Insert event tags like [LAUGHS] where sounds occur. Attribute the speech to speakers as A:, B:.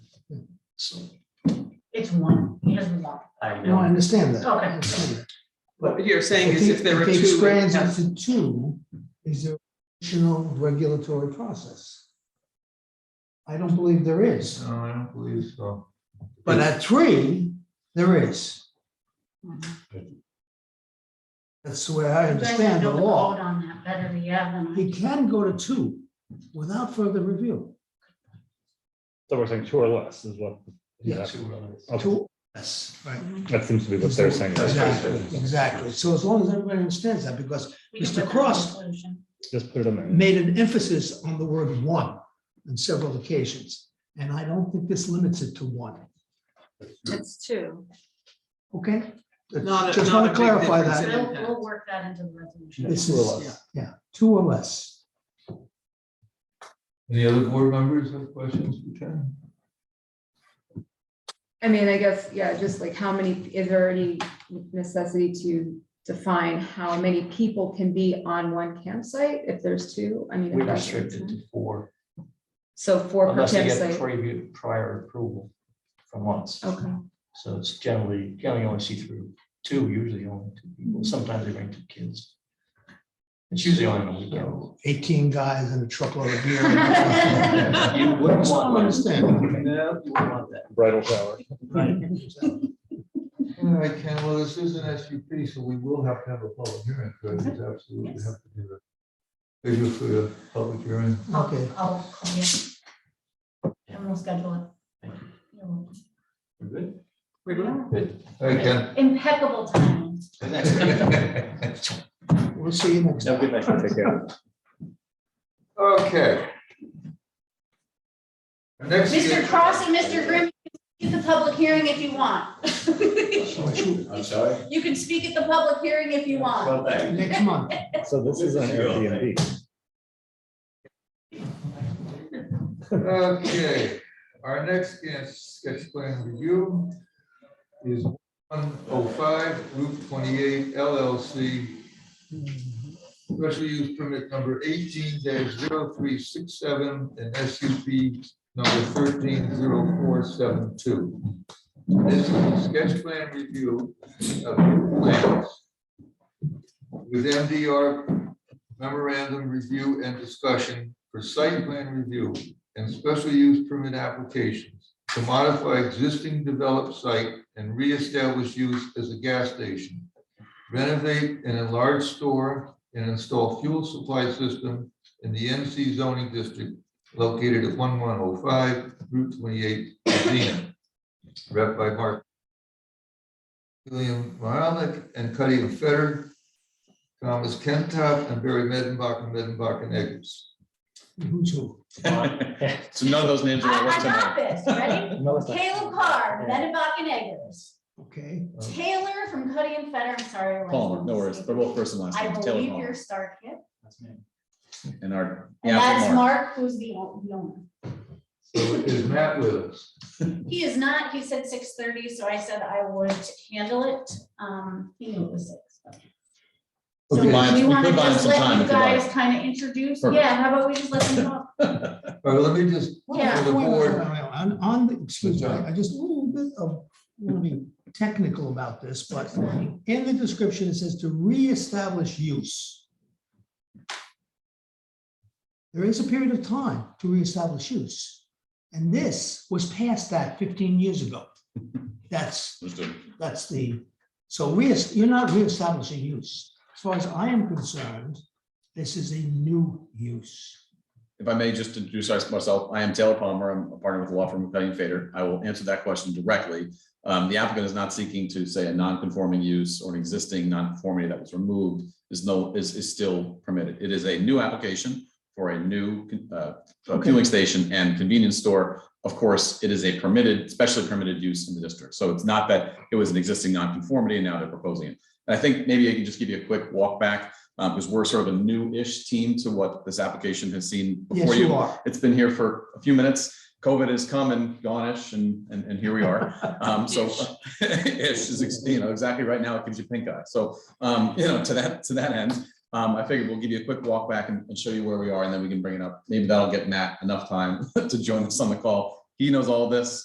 A: So,
B: It's one, he doesn't want.
C: I
A: no, I
C: know,
A: understand that. I
B: Okay.
A: understand that.
D: What you're
A: I
D: saying is
A: think
D: if there were
A: It
D: two, we'd
A: expands
D: have-
A: into two, is there additional regulatory process? I don't believe there is.
E: No, I don't believe so.
A: But at three, there is. That's the way I
B: You guys
A: understand the
B: know
A: law.
B: code On that better, yeah, than I.
A: He can go to two without further review.
F: So we're saying two or less is what.
A: Yeah.
F: Exactly.
E: Two others.
F: Okay,
A: Two, yes, right.
F: That seems to be what they're saying.
A: Exactly, exactly. So as long as everybody understands that, because
B: We can
A: Mr.
B: put that in
A: Cross-
B: resolution.
F: Just put it in there.
A: made an emphasis on the word one on several occasions. And I don't think this limits it to one,
G: It's two.
A: okay?
D: Not a-
A: Just
D: not a
A: want to
D: big
A: clarify
D: difference.
A: that.
B: We'll,
D: impact.
B: we'll work that into the resolution.
A: This
F: Two or
A: is,
F: less.
A: yeah, two or less.
E: Any other board members have questions for Ken?
G: I mean, I guess, yeah, just like how many, is there any necessity to define how many people can be on one campsite if there's two? I mean. if
C: we
G: that's-
C: restrict it to four,
G: So four per
C: unless they get
G: campsite.
C: prior, prior approval from once.
G: Okay,
C: So it's generally, generally only see through two, usually only two people, sometimes they bring two kids. It's usually only on a
A: You
C: weekend.
A: know, Eighteen guys and a truckload of beer.
D: [LAUGHS]
C: [LAUGHS] You wouldn't
A: That's what I
C: want that.
A: understand.
C: No, you wouldn't want that.
F: Bridal shower.
E: All right, Ken, well, this is an SUP, so we will have to have a public hearing, so it's absolutely have to do that. They do for the public hearing.
A: Okay,
B: I'll call you. And we'll schedule it.
C: Thank you.
B: You're welcome.
C: We're good?
D: We're good.
E: All right, Ken.
B: Impeccable timing.
C: [LAUGHS]
A: we'll see you next.
C: Have a good night.
F: Take care.
E: [LAUGHS] Okay. Next.
B: Mr. Cross and Mr. Grimm, you can speak at the public hearing if you want.
H: I'm sorry?
B: You can speak at the public hearing if you want.
H: Well, thank you.
A: Next month.
F: So this is an Airbnb.
E: Okay, our next sketch, sketch plan review is one oh five Route twenty-eight LLC. Special use permit number eighteen 367 and SUP number thirteen zero four seven two. This is a sketch plan review of the plans with MDR memorandum review and discussion for site plan review and special use permit applications to modify existing developed site and reestablish use as a gas station. Renovate and enlarge store and install fuel supply system in the NC zoning district located at one one oh five Route twenty-eight, Medina. Rep by Mark. William Maralik and Cuddy and Feder. Thomas Kentop and Barry Medenbach and Medenbach and Eggers.
A: Who's who?
I: [LAUGHS] So none of those names are
B: I
I: gonna work
B: I got
I: tonight.
B: this, ready?
F: No, it's not.
B: Caleb Carr, Medenbach and Eggers.
A: Okay,
B: Taylor from Cuddy and Feder, I'm sorry. I wrote
I: Palmer, no
B: down.
I: worries. They're both first and last
B: I
I: names. Taylor
B: believe you're
I: Palmer
B: Starkit.
I: and our.
B: And
I: yeah,
B: that's
I: Mark.
B: Mark, who's the o- the owner.
E: So is Matt with us?
B: He is not, he said six thirty, so I said I would handle it. Um, he knew it was six. but-
I: We
B: So
I: could buy him-
B: we
I: we
B: want to
I: could buy him
B: just
I: some time
B: let you
I: if you like.
B: guys kind of introduce,
I: Perfect.
B: yeah, how about we just let them talk?
E: All right, let me just, for
B: Yeah.
E: the board,
A: On, on, the- excuse me,
E: Good job.
A: I just a little bit of, want to be technical about this, but in the description, it says to reestablish use. There is a period of time to reestablish use, and this was past that fifteen years ago. That's
I: Understood.
A: that's the, so re, you're not reestablishing use. As far as I am concerned, this is a new use.
I: If I may just introduce myself, I am Taylor Palmer. I'm a partner with the law firm of Cutting and Fader. I will answer that question directly. Um, the applicant is not seeking to say a non-conforming use or an existing non-conformity that was removed is no, is, is still permitted. It is a new application for a new, uh, fueling station and convenience store. Of course, it is a permitted, specially permitted use in the district. So it's not that it was an existing non-conformity and now they're proposing it. And I think maybe I can just give you a quick walk back, uh, because we're sort of a new-ish team to what this application has seen before
A: Yes, you
I: you.
A: are.
I: It's been here for a few minutes. COVID has come and gone-ish and, and, and here we are. Um, so [LAUGHS] ish is, ex- you know, exactly right now, it gives you pink eye. So, um, you know, to that, to that end, um, I figured we'll give you a quick walk back and, and show you where [LAUGHS] we are and then we can bring it up. Maybe that'll get Matt enough time to join us on the call. He knows all this.